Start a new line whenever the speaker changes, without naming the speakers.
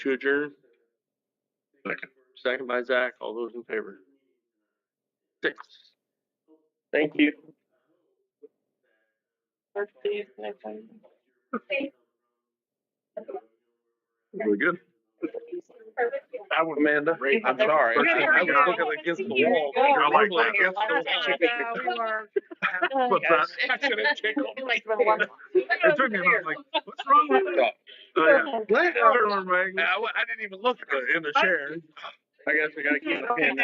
to adjourn?
Second.
Second by Zach. All those in favor? Six. Thank you.
Really good.
That was Amanda.
I'm sorry. I was looking
against the wall. I like that. What's that? I should have tickled.
It took me a minute, like, what's wrong with that?
Oh, yeah.
Let her, Maggie.
I, wa- I didn't even look in the chair. I guess we gotta keep it in.